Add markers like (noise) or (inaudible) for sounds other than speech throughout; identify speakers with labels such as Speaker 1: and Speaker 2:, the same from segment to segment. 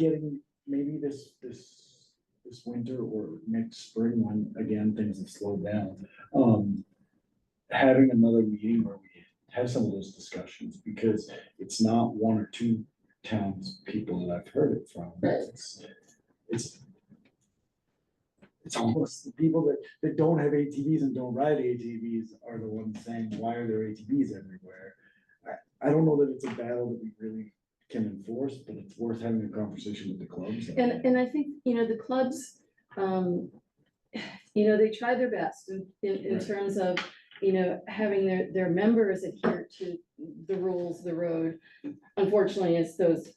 Speaker 1: getting maybe this, this, this winter or next spring when, again, things have slowed down. Um, having another meeting where we have some of those discussions, because it's not one or two towns people that I've heard it from.
Speaker 2: Right.
Speaker 1: It's, it's it's almost the people that, that don't have ATVs and don't ride ATVs are the ones saying, why are there ATVs everywhere? I, I don't know that it's a battle that we really can enforce, but it's worth having a conversation with the clubs.
Speaker 2: And, and I think, you know, the clubs, um, you know, they try their best in, in, in
Speaker 1: Right.
Speaker 2: terms of, you know, having their, their members adhere to the rules, the road. Unfortunately, it's those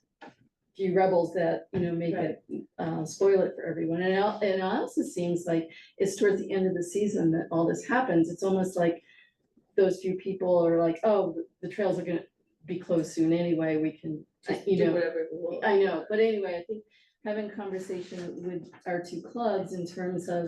Speaker 2: few rebels that, you know, make it, uh, spoil it for everyone. And it, al- and it also seems like it's towards the end of the season that all this happens. It's almost like those few people are like, oh, the trails are gonna be closed soon anyway, we can, uh,
Speaker 3: Just
Speaker 2: you know.
Speaker 3: do whatever we want.
Speaker 2: I know, but anyway, I think having conversation with our two clubs in terms of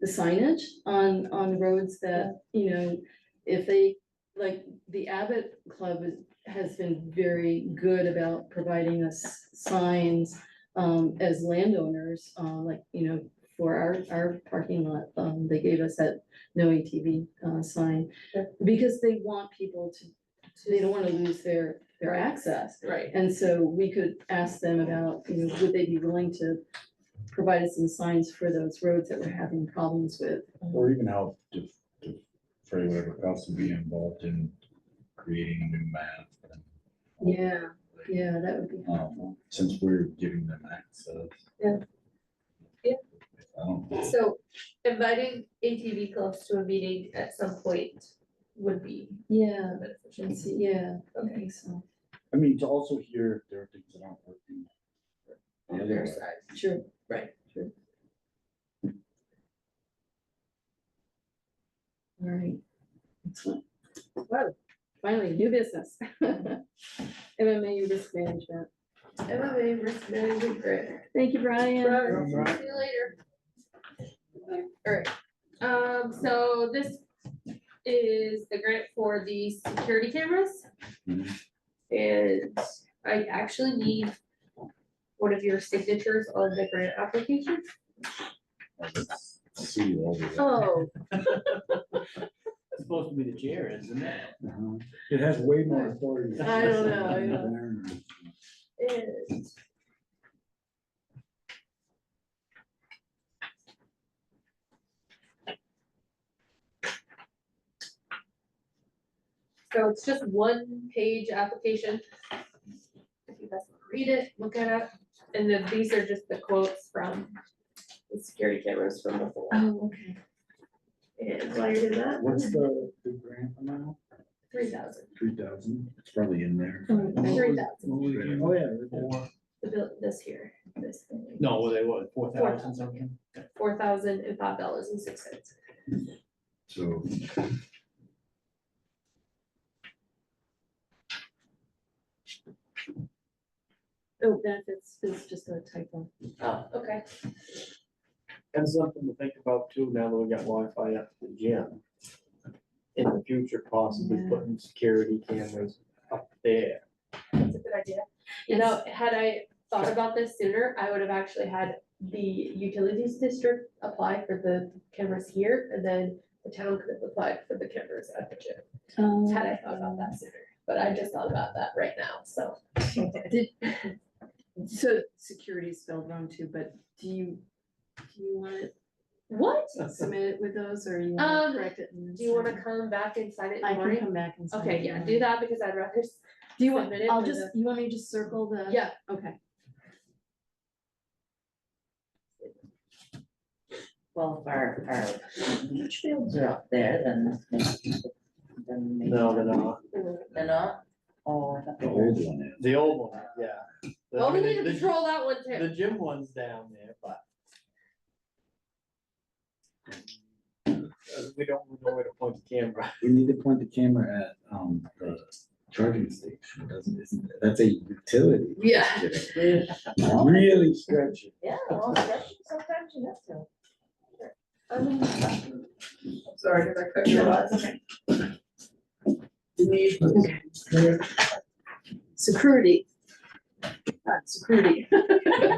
Speaker 2: the signage on, on roads that, you know, if they, like, the Abbott Club is- has been very good about providing us signs um, as landowners, uh, like, you know, for our, our parking lot, um, they gave us that no ATV, uh, sign.
Speaker 3: Yeah.
Speaker 2: Because they want people to, they don't wanna lose their, their access.
Speaker 3: Right,
Speaker 2: And so we could ask them about, you know, would they be willing to provide us some signs for those roads that we're having problems with?
Speaker 4: Or even help to, to Freddie, whatever else would be involved in creating a new map. and-
Speaker 2: Yeah, yeah, that would be helpful.
Speaker 4: Um, since we're giving them access.
Speaker 3: Yeah. Yeah.
Speaker 4: I don't,
Speaker 3: so inviting ATV clubs to a meeting at some point would be
Speaker 2: Yeah,
Speaker 3: beneficial.
Speaker 2: and see, yeah, I
Speaker 3: Okay,
Speaker 2: think so,
Speaker 1: I mean, to also hear there are things that aren't working.
Speaker 3: on
Speaker 1: Yeah,
Speaker 3: their
Speaker 1: yeah.
Speaker 3: side.
Speaker 2: sure.
Speaker 3: Right.
Speaker 2: Sure. All right. Excellent. Well, finally, new business. (laughs) MMA risk management.
Speaker 3: MMA risk management grant.
Speaker 2: Thank you, Brian.
Speaker 3: Brian,
Speaker 1: Brian.
Speaker 3: See you later. Alright, um, so this is the grant for the security cameras. Mm-hmm.
Speaker 4: Mhm.
Speaker 3: And I actually need one of your signatures on the grant application.
Speaker 4: I just see you over there.
Speaker 2: Oh,
Speaker 5: It's supposed to be the chair, isn't it?
Speaker 1: Uh-huh. It has way more authority.
Speaker 2: I don't know, I
Speaker 1: than
Speaker 2: know.
Speaker 1: an iron.
Speaker 3: And So it's just one page application. If you guys wanna read it, look it up, and then these are just the quotes from the security cameras from before.
Speaker 2: oh, okay.
Speaker 3: And while you're doing
Speaker 1: (laughs)
Speaker 3: that,
Speaker 1: What's the, the grant amount?
Speaker 3: three thousand,
Speaker 1: Three thousand? It's probably in there.
Speaker 2: Mm-hmm.
Speaker 3: three thousand,
Speaker 5: What was it?
Speaker 1: Oh, yeah.
Speaker 5: Four,
Speaker 3: the bill, this here, this thing.
Speaker 5: no, what they were, four thousand something?
Speaker 3: Four thousand and five dollars and six cents.
Speaker 4: So.
Speaker 2: Oh, benefits is just a typo.
Speaker 5: Oh.
Speaker 3: Okay.
Speaker 5: And something to think about too, now that we got Wi-Fi up to the gym. In the future, possibly
Speaker 2: Yeah.
Speaker 5: putting security cameras up there.
Speaker 3: That's a good idea. You know, had I thought about this sooner, I would have actually had the utilities district apply for the cameras here, and then the town could have applied for the cameras at the gym. Had I thought about that sooner, but I just thought about that right now, so.
Speaker 2: So security is spelled wrong too, but do you, do you want to
Speaker 3: What?
Speaker 2: submit it with those or you want
Speaker 3: Um,
Speaker 2: to correct it? in the
Speaker 3: Do you wanna
Speaker 2: second?
Speaker 3: come back and sign it in the
Speaker 2: I can
Speaker 3: morning?
Speaker 2: come back and.
Speaker 3: Okay, yeah, do that, because I'd rather, s-
Speaker 2: Do you want,
Speaker 3: submit it
Speaker 2: I'll
Speaker 3: with
Speaker 2: just, you want me to just circle the?
Speaker 3: yeah,
Speaker 2: Okay.
Speaker 6: Well, if our, our beach fields are up there, then. Then maybe.
Speaker 5: No, no, no,
Speaker 6: They're not? Oh, I thought they
Speaker 4: The
Speaker 6: were.
Speaker 4: old one is.
Speaker 5: the old one, yeah. The-
Speaker 3: well, we
Speaker 5: the-
Speaker 3: need to
Speaker 5: the-
Speaker 3: control that one
Speaker 5: The
Speaker 3: too.
Speaker 5: gym one's down there, but. Uh, We don't know where to point the camera.
Speaker 4: We need to point the camera at, um, the charging station, doesn't, isn't, it? that's a utility.
Speaker 3: Yeah.
Speaker 1: Really stretchy.
Speaker 6: Yeah, well, that's- sometimes you have to.
Speaker 3: Sorry, did I cut you off?
Speaker 2: Security. Ah, Security.